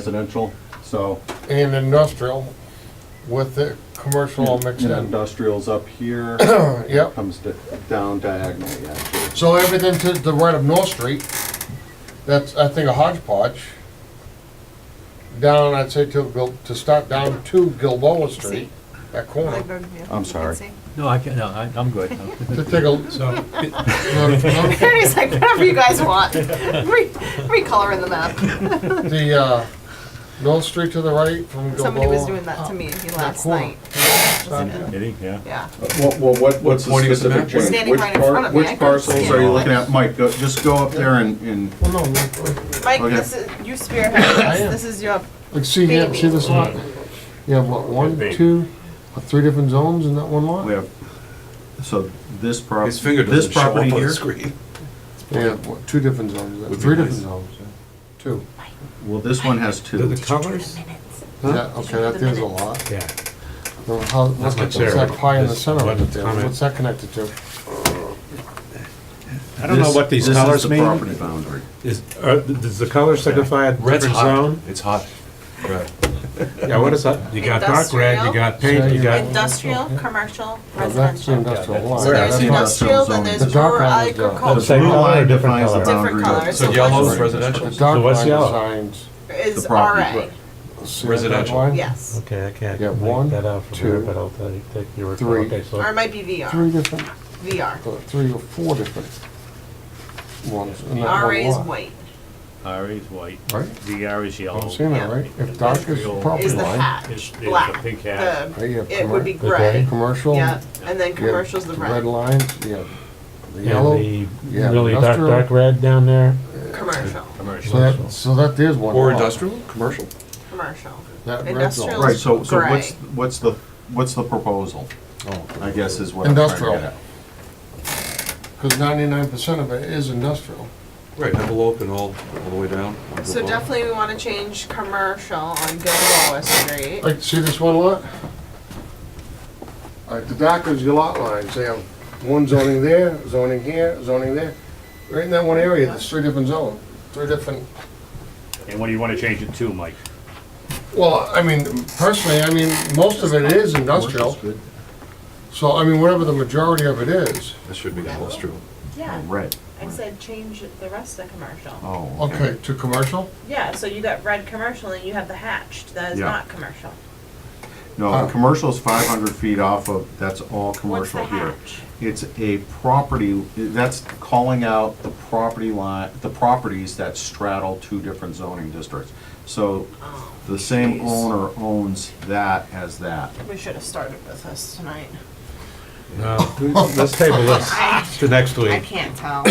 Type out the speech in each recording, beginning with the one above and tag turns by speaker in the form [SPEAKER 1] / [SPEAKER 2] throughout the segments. [SPEAKER 1] residential, so,
[SPEAKER 2] and industrial with the commercial all mixed
[SPEAKER 1] and
[SPEAKER 2] in.
[SPEAKER 1] industrial's up here,
[SPEAKER 2] Yep,
[SPEAKER 1] comes di- down diagonally, actually.
[SPEAKER 2] so everything to the right of North Street, that's, I think, a hodgepodge. Down, I'd say to, Gil- to start down to Gilboa Street, that corner,
[SPEAKER 1] I'm sorry.
[SPEAKER 3] No, I can't, no, I- I'm good.
[SPEAKER 2] to take a.
[SPEAKER 3] So,
[SPEAKER 2] The,
[SPEAKER 4] Cody's like, whatever you guys want. Re- recolor in the map.
[SPEAKER 2] the, uh, North Street to the right from Gilboa.
[SPEAKER 4] Somebody was doing that to me last
[SPEAKER 2] corner.
[SPEAKER 4] night.
[SPEAKER 3] Kidding, yeah.
[SPEAKER 4] Yeah.
[SPEAKER 1] Well, well, what, what's the
[SPEAKER 5] What point is
[SPEAKER 1] specific
[SPEAKER 5] that? We're
[SPEAKER 1] change?
[SPEAKER 4] standing
[SPEAKER 1] Which
[SPEAKER 4] right in
[SPEAKER 1] par-
[SPEAKER 4] front of me. I
[SPEAKER 1] Which
[SPEAKER 4] couldn't
[SPEAKER 1] parcels
[SPEAKER 4] see
[SPEAKER 1] are
[SPEAKER 4] it.
[SPEAKER 1] you looking at? Mike, go, just go up there and, and,
[SPEAKER 2] Well, Oh, no, look,
[SPEAKER 4] Mike,
[SPEAKER 1] Okay.
[SPEAKER 4] this is, you spearheaded
[SPEAKER 2] I
[SPEAKER 4] this.
[SPEAKER 2] am.
[SPEAKER 4] This is your,
[SPEAKER 2] look, see, here, see this lot? You have what, one, two, or three different zones in that one lot?
[SPEAKER 1] we have, so this prop,
[SPEAKER 5] His finger
[SPEAKER 1] this
[SPEAKER 5] doesn't show up
[SPEAKER 1] property
[SPEAKER 5] on the
[SPEAKER 1] here,
[SPEAKER 5] screen.
[SPEAKER 2] Yeah, what, two different zones, uh,
[SPEAKER 5] Would be
[SPEAKER 2] three
[SPEAKER 5] nice.
[SPEAKER 2] different zones, yeah. two.
[SPEAKER 1] well, this one has two.
[SPEAKER 5] colors?
[SPEAKER 2] Yeah, okay, that there's a lot.
[SPEAKER 6] Yeah,
[SPEAKER 2] Well, how- What's
[SPEAKER 6] not
[SPEAKER 2] that- what's
[SPEAKER 6] there.
[SPEAKER 2] that pie in the
[SPEAKER 6] That's
[SPEAKER 2] center of
[SPEAKER 6] one
[SPEAKER 2] it there,
[SPEAKER 6] comment.
[SPEAKER 2] what's that connected to?
[SPEAKER 6] I don't know
[SPEAKER 1] This-
[SPEAKER 6] what these
[SPEAKER 1] this is
[SPEAKER 6] colors
[SPEAKER 1] the
[SPEAKER 6] mean.
[SPEAKER 1] Property boundary.
[SPEAKER 6] Is, are, does the color signify a
[SPEAKER 5] Red's
[SPEAKER 6] different
[SPEAKER 5] hot.
[SPEAKER 6] zone?
[SPEAKER 5] It's hot. Red.
[SPEAKER 6] Yeah, what is that? You got dark red,
[SPEAKER 4] Industrial.
[SPEAKER 6] you got pink, you got,
[SPEAKER 4] industrial, commercial,
[SPEAKER 2] Yeah, That's the
[SPEAKER 4] residential.
[SPEAKER 2] industrial
[SPEAKER 6] that's-
[SPEAKER 2] lot.
[SPEAKER 4] So
[SPEAKER 6] Where?
[SPEAKER 4] there's
[SPEAKER 1] That's
[SPEAKER 4] industrial,
[SPEAKER 1] industrial
[SPEAKER 4] then
[SPEAKER 1] zoning.
[SPEAKER 4] there's
[SPEAKER 2] The dark
[SPEAKER 4] rural
[SPEAKER 2] line is uh, the-
[SPEAKER 6] The
[SPEAKER 4] agricultural.
[SPEAKER 6] Oh, same
[SPEAKER 1] Blue line
[SPEAKER 6] different
[SPEAKER 1] defines the
[SPEAKER 6] color.
[SPEAKER 4] Different
[SPEAKER 1] boundary.
[SPEAKER 4] colors.
[SPEAKER 5] So
[SPEAKER 4] So
[SPEAKER 5] yellow
[SPEAKER 4] what's-
[SPEAKER 5] is
[SPEAKER 2] The
[SPEAKER 5] residential?
[SPEAKER 2] dark
[SPEAKER 6] what's
[SPEAKER 2] line
[SPEAKER 6] yellow?
[SPEAKER 2] designs.
[SPEAKER 4] Is
[SPEAKER 1] The property.
[SPEAKER 2] see
[SPEAKER 4] RA.
[SPEAKER 2] that dark
[SPEAKER 5] Residential.
[SPEAKER 2] line?
[SPEAKER 4] Yes.
[SPEAKER 6] okay, I can't
[SPEAKER 2] Yeah,
[SPEAKER 6] make
[SPEAKER 2] one,
[SPEAKER 6] that out from here,
[SPEAKER 2] two,
[SPEAKER 6] but I'll tell you, take your report.
[SPEAKER 2] three.
[SPEAKER 6] Okay, so-
[SPEAKER 4] Or it might be
[SPEAKER 2] Three
[SPEAKER 4] VR.
[SPEAKER 2] different,
[SPEAKER 4] VR.
[SPEAKER 2] uh, three or four different ones in that
[SPEAKER 4] RA
[SPEAKER 2] one
[SPEAKER 4] is
[SPEAKER 2] lot.
[SPEAKER 4] white.
[SPEAKER 3] R is white,
[SPEAKER 2] Right?
[SPEAKER 3] DR is
[SPEAKER 6] Oh,
[SPEAKER 3] yellow.
[SPEAKER 2] I'm seeing that,
[SPEAKER 4] Yeah.
[SPEAKER 2] right? If dark is the
[SPEAKER 3] Industrial
[SPEAKER 2] property
[SPEAKER 4] Is the
[SPEAKER 2] line,
[SPEAKER 4] hat.
[SPEAKER 3] Is- is the
[SPEAKER 4] Black.
[SPEAKER 3] pink hat.
[SPEAKER 4] The-
[SPEAKER 2] right, you have
[SPEAKER 4] It would be
[SPEAKER 2] commer-
[SPEAKER 4] gray.
[SPEAKER 6] Okay.
[SPEAKER 2] commercial. you
[SPEAKER 4] Yeah.
[SPEAKER 2] have
[SPEAKER 4] And then commercial's the red.
[SPEAKER 2] lines, you have the
[SPEAKER 6] And
[SPEAKER 2] yellow.
[SPEAKER 6] the
[SPEAKER 2] yeah,
[SPEAKER 6] really dark,
[SPEAKER 2] industrial.
[SPEAKER 6] dark red down there.
[SPEAKER 4] Commercial.
[SPEAKER 2] So
[SPEAKER 3] Commercial.
[SPEAKER 2] that, so that is one
[SPEAKER 5] Or
[SPEAKER 2] lot.
[SPEAKER 5] industrial, commercial?
[SPEAKER 4] Commercial.
[SPEAKER 2] That red zone.
[SPEAKER 4] Industrial
[SPEAKER 1] Right, so, so what's,
[SPEAKER 4] gray.
[SPEAKER 1] what's the, what's the proposal,
[SPEAKER 6] Oh.
[SPEAKER 1] I guess is what I'm trying to
[SPEAKER 2] Industrial.
[SPEAKER 1] get at.
[SPEAKER 2] Because ninety-nine percent of it is industrial.
[SPEAKER 5] Right, envelope and all, all the way down.
[SPEAKER 4] So definitely we want to change commercial on Gilboa Street.
[SPEAKER 2] Like, see this one lot? All right, the dock is your lot lines, they have one zoning there, zoning here, zoning there. Right in that one area, there's three different zones, three different,
[SPEAKER 3] And what do you want to change it to, Mike?
[SPEAKER 2] well, I mean, personally, I mean, most of it is industrial. So, I mean, whatever the majority of it is.
[SPEAKER 5] That should be industrial.
[SPEAKER 4] Yeah,
[SPEAKER 1] Oh, Red,
[SPEAKER 4] I said change the rest to commercial.
[SPEAKER 1] oh, okay.
[SPEAKER 2] Okay, to commercial?
[SPEAKER 4] Yeah, so you got red commercial and you have the hatched, that is
[SPEAKER 1] Yeah.
[SPEAKER 4] not commercial.
[SPEAKER 1] No,
[SPEAKER 2] Huh.
[SPEAKER 1] commercial's five hundred feet off of, that's all
[SPEAKER 4] What's the
[SPEAKER 1] commercial here.
[SPEAKER 4] hatch?
[SPEAKER 1] It's a property, that's calling out the property line, the properties that straddle two different zoning districts. So
[SPEAKER 4] Oh,
[SPEAKER 1] the same
[SPEAKER 4] Jeez.
[SPEAKER 1] owner owns that as that.
[SPEAKER 4] We should have started with this tonight.
[SPEAKER 6] No, let's table this to next
[SPEAKER 4] I
[SPEAKER 6] week.
[SPEAKER 4] can't tell.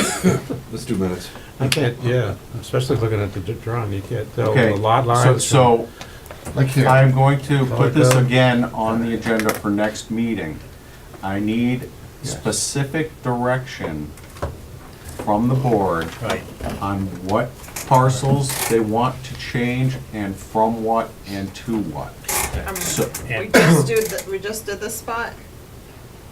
[SPEAKER 5] Let's do minutes.
[SPEAKER 6] I can't, yeah, especially looking at the d- drawing, you can't tell
[SPEAKER 1] Okay.
[SPEAKER 6] the lot
[SPEAKER 1] so-
[SPEAKER 6] lines.
[SPEAKER 1] So
[SPEAKER 2] Like here,
[SPEAKER 1] I'm going to put this
[SPEAKER 6] Okay.
[SPEAKER 1] again on the agenda for next meeting. I need specific direction from the board
[SPEAKER 3] Right.
[SPEAKER 1] on what parcels they want to change and from what and to what.
[SPEAKER 4] Um,
[SPEAKER 1] So,
[SPEAKER 4] We
[SPEAKER 3] And
[SPEAKER 4] just do, th- we just did this spot?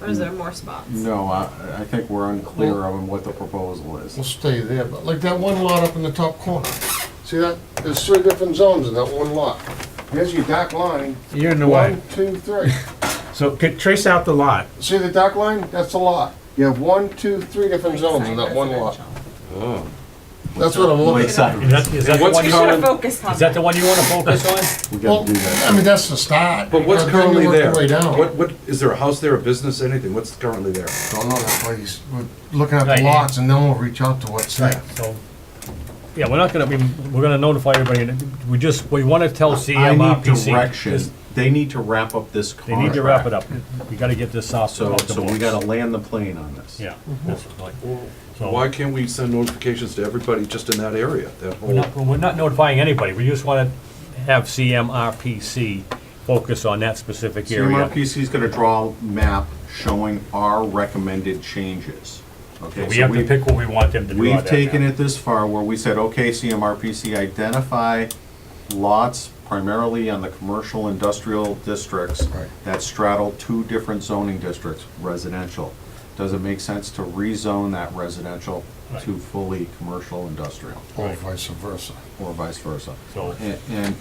[SPEAKER 4] Or is there
[SPEAKER 1] Mm.
[SPEAKER 4] more spots?
[SPEAKER 1] no, I, I think we're unclear on what the proposal is.
[SPEAKER 2] we'll stay there, but like that one lot up in the top corner. See that? There's three different zones in that one lot. Here's your dock line,
[SPEAKER 6] You're in the way.
[SPEAKER 2] one, two, three.
[SPEAKER 6] So could trace out the lot.
[SPEAKER 2] See the dock line? That's a lot. You have one, two, three different zones in that one lot.
[SPEAKER 4] Residential.
[SPEAKER 5] Oh.
[SPEAKER 2] That's what I'm looking at.
[SPEAKER 3] Is that, is that the
[SPEAKER 5] what's
[SPEAKER 3] one you
[SPEAKER 4] We should have
[SPEAKER 3] want,
[SPEAKER 4] focused on
[SPEAKER 3] is that the
[SPEAKER 4] that.
[SPEAKER 3] one you want to focus
[SPEAKER 1] We
[SPEAKER 2] Well,
[SPEAKER 1] gotta do that.
[SPEAKER 2] I mean, that's the start.
[SPEAKER 5] But what's
[SPEAKER 2] But then you
[SPEAKER 5] currently
[SPEAKER 2] work your
[SPEAKER 5] there?
[SPEAKER 2] Way down.
[SPEAKER 5] What, what, is there a house there, a business, anything? What's currently there?
[SPEAKER 2] Don't know that place. We're looking at
[SPEAKER 3] Right
[SPEAKER 2] the
[SPEAKER 3] here.
[SPEAKER 2] lots and then we'll reach out to what's there.
[SPEAKER 3] on? So, Yeah, we're not gonna, I mean, we're gonna notify everybody, and we just, we want to tell
[SPEAKER 1] I need
[SPEAKER 3] CMRPC.
[SPEAKER 1] direction.
[SPEAKER 3] is-
[SPEAKER 1] They need to wrap up this
[SPEAKER 3] They
[SPEAKER 1] contract.
[SPEAKER 3] need to wrap it up. We gotta get this off.
[SPEAKER 1] So,
[SPEAKER 3] off the
[SPEAKER 1] so we
[SPEAKER 3] books.
[SPEAKER 1] gotta land the plane on this.
[SPEAKER 3] Yeah. that's right. So-
[SPEAKER 5] Why can't we send notifications to everybody just in that area, that
[SPEAKER 3] We're
[SPEAKER 5] whole?
[SPEAKER 3] not, we're not notifying anybody, we just wanna have CMRPC focus on that specific area.
[SPEAKER 1] CMRPC is gonna draw a map showing our recommended changes. Okay,
[SPEAKER 3] We
[SPEAKER 1] so
[SPEAKER 3] have to
[SPEAKER 1] we've-
[SPEAKER 3] pick what we want them to draw
[SPEAKER 1] We've
[SPEAKER 3] that
[SPEAKER 1] taken
[SPEAKER 3] map.
[SPEAKER 1] it this far where we said, okay, CMRPC, identify lots primarily on the commercial industrial districts
[SPEAKER 2] Right.
[SPEAKER 1] that straddle two different zoning districts, residential. Does it make sense to rezone that residential
[SPEAKER 2] to fully commercial industrial,
[SPEAKER 1] or vice versa.
[SPEAKER 2] or vice versa.
[SPEAKER 6] So-
[SPEAKER 2] A- And